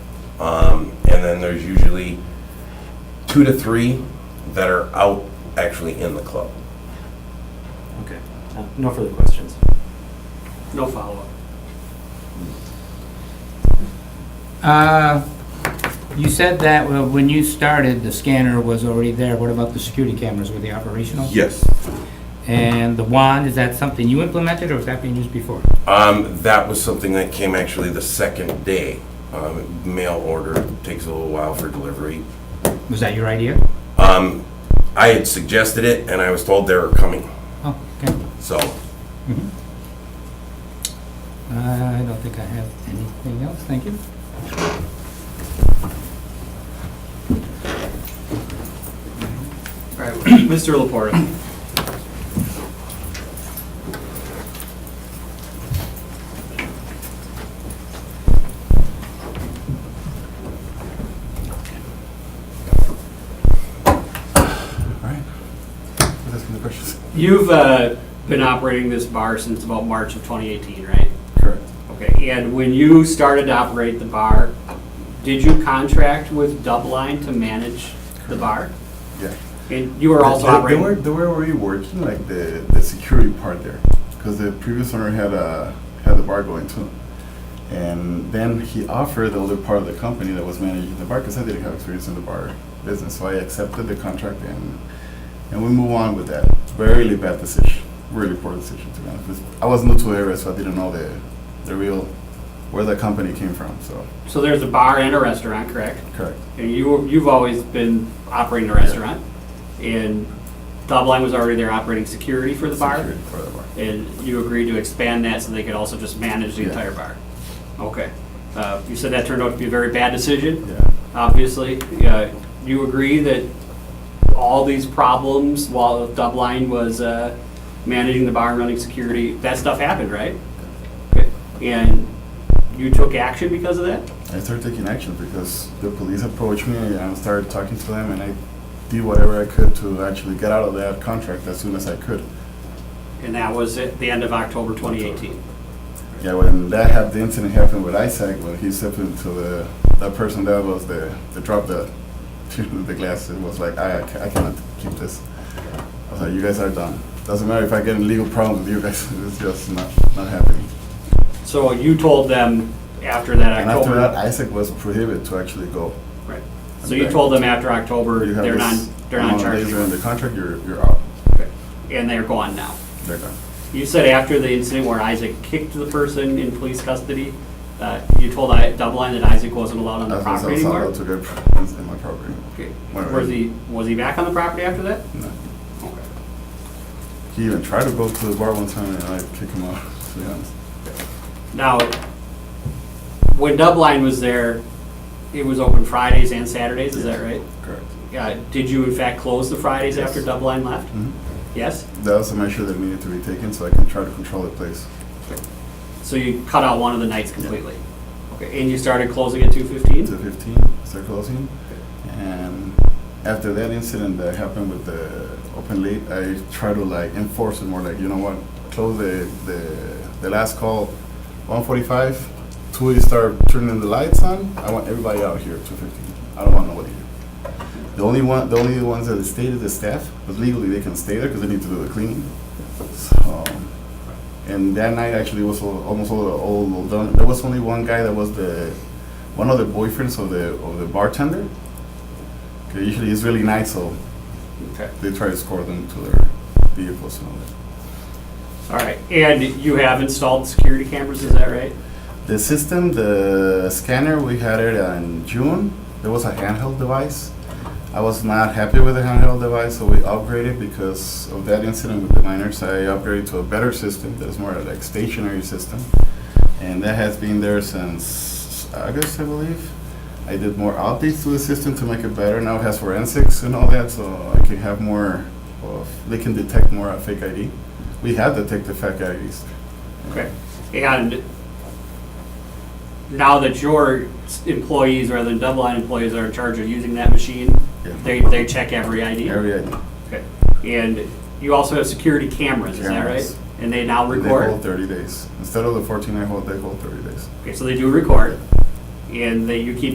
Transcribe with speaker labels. Speaker 1: and there's usually two to three that are out actually in the club.
Speaker 2: Okay, Uh, no further questions.
Speaker 3: No follow-up.
Speaker 4: Uh, You said that well, when you started, the scanner was already there. What about the security cameras? Were they operational?
Speaker 1: Yes.
Speaker 4: And the wand, is that something you implemented or was that being used before?
Speaker 1: Um, that was something that came actually the second day. Um, mail order takes a little while for delivery.
Speaker 4: Was that your idea?
Speaker 1: Um, I had suggested it and I was told they were coming,
Speaker 4: Oh, okay.
Speaker 1: so.
Speaker 4: Uh, I don't think I have anything else. Thank you.
Speaker 2: All right, Mr. Laporta.
Speaker 3: You've uh, been operating this bar since about March of 2018, right?
Speaker 2: Correct.
Speaker 3: Okay, and when you started to operate the bar, did you contract with Dubline to manage the bar?
Speaker 5: Yeah.
Speaker 3: And you were also
Speaker 5: The- the- the
Speaker 3: operating,
Speaker 5: way- The way we were working, like the, the security part there, because the previous owner had a, had the bar going too. And then he offered the other part of the company that was managing the bar, because I didn't have experience in the bar business, so I accepted the contract and, and we move on with that. Really bad decision, really poor decision to be honest. This- I was new to the area, so I didn't know the, the real, where the company came from, so,
Speaker 3: so there's a bar and a restaurant, correct?
Speaker 5: correct.
Speaker 3: And you, you've always been operating a restaurant, and Dubline was already there operating security for the bar?
Speaker 5: Security part of the bar.
Speaker 3: And you agreed to expand that so they could also just manage the
Speaker 5: Yeah.
Speaker 3: entire bar? Okay. Uh, You said that turned out to be a very bad decision?
Speaker 5: Yeah.
Speaker 3: obviously. Uh, You agree that all these problems while Dubline was uh, managing the bar and running security, that stuff happened, right? And you took action because of that?
Speaker 5: I started taking action because the police approached me and I started talking to them and I did whatever I could to actually get out of that contract as soon as I could.
Speaker 3: And that was at the end of October 2018.
Speaker 5: Yeah, when that happened, the incident happened with Isaac, when he stepped into the, that person that was the, the drop that, the glass, it was like, I, I ca- I cannot keep this. I was like, you guys are done. Doesn't matter if I get in legal problems with you guys, it's just not, not happening.
Speaker 3: So you told them after that
Speaker 5: And after that,
Speaker 3: October.
Speaker 5: Isaac was prohibited to actually go.
Speaker 3: right. So you told them after October,
Speaker 5: You have
Speaker 3: they're
Speaker 5: this
Speaker 3: not, they're not
Speaker 5: amount of days
Speaker 3: charging
Speaker 5: You're in
Speaker 3: you.
Speaker 5: the contract, you're, you're out.
Speaker 3: Okay. And they're gone now.
Speaker 5: They're gone.
Speaker 3: You said after the incident where Isaac kicked the person in police custody, uh, you told I, Doubleline that Isaac wasn't allowed on the
Speaker 5: That's what
Speaker 3: property
Speaker 5: sounds like
Speaker 3: anymore?
Speaker 5: to good friends in my property.
Speaker 3: Okay.
Speaker 5: Wait,
Speaker 3: Was
Speaker 5: wait.
Speaker 3: he, was he back on the property after that?
Speaker 5: No.
Speaker 3: Okay.
Speaker 5: He even tried to go to the bar one time and I kicked him out, to be honest.
Speaker 3: Now, when Doubleline was there, it was open Fridays and Saturdays, is that right?
Speaker 5: Correct.
Speaker 3: Yeah, did you in fact close the Fridays
Speaker 5: Yes.
Speaker 3: after Doubleline left?
Speaker 5: Mhm.
Speaker 3: Yes?
Speaker 5: That was a measure that needed to be taken so I can try to control the place.
Speaker 3: So you cut out one of the nights completely? Okay, and you started closing at two fifteen?
Speaker 5: To 15, start closing. And after that incident that happened with the open late, I try to like enforce it more like, you know what, close the, the, the last call, 145, two is start turning the lights on. I want everybody out here, 215. I don't want nobody here. The only one, the only ones that stayed is the staff, but legally they can stay there because they need to do the cleaning. So, and that night actually was al- almost all, all, all done. There was only one guy that was the one of the boyfriends of the of the bartender. 'Cause Usually he's really nice, so
Speaker 3: Okay.
Speaker 5: they try to score them to their vehicles and all that.
Speaker 3: All right, and you have installed security cameras, is that right?
Speaker 5: The system, the scanner, we had it in June. There was a handheld device. I was not happy with the handheld device, so we upgraded because of that incident with the miners. I upgraded to a better system that is more like stationary system, and that has been there since August, I believe. I did more updates to the system to make it better. Now it has forensics and all that, so I can have more of. They can detect more of fake ID. We have detected fake IDs.
Speaker 3: Okay, and now that your s- employees, rather than double line employees, are in charge of using that machine,
Speaker 5: Yeah.
Speaker 3: they, they check every ID?
Speaker 5: Every ID.
Speaker 3: Okay, and you also have security cameras, is that right?
Speaker 5: Cameras.
Speaker 3: And they now
Speaker 5: They hold
Speaker 3: record?
Speaker 5: 30 days. Instead of the 14 I hold, they hold 30 days.
Speaker 3: Okay, so they do record, and they, you keep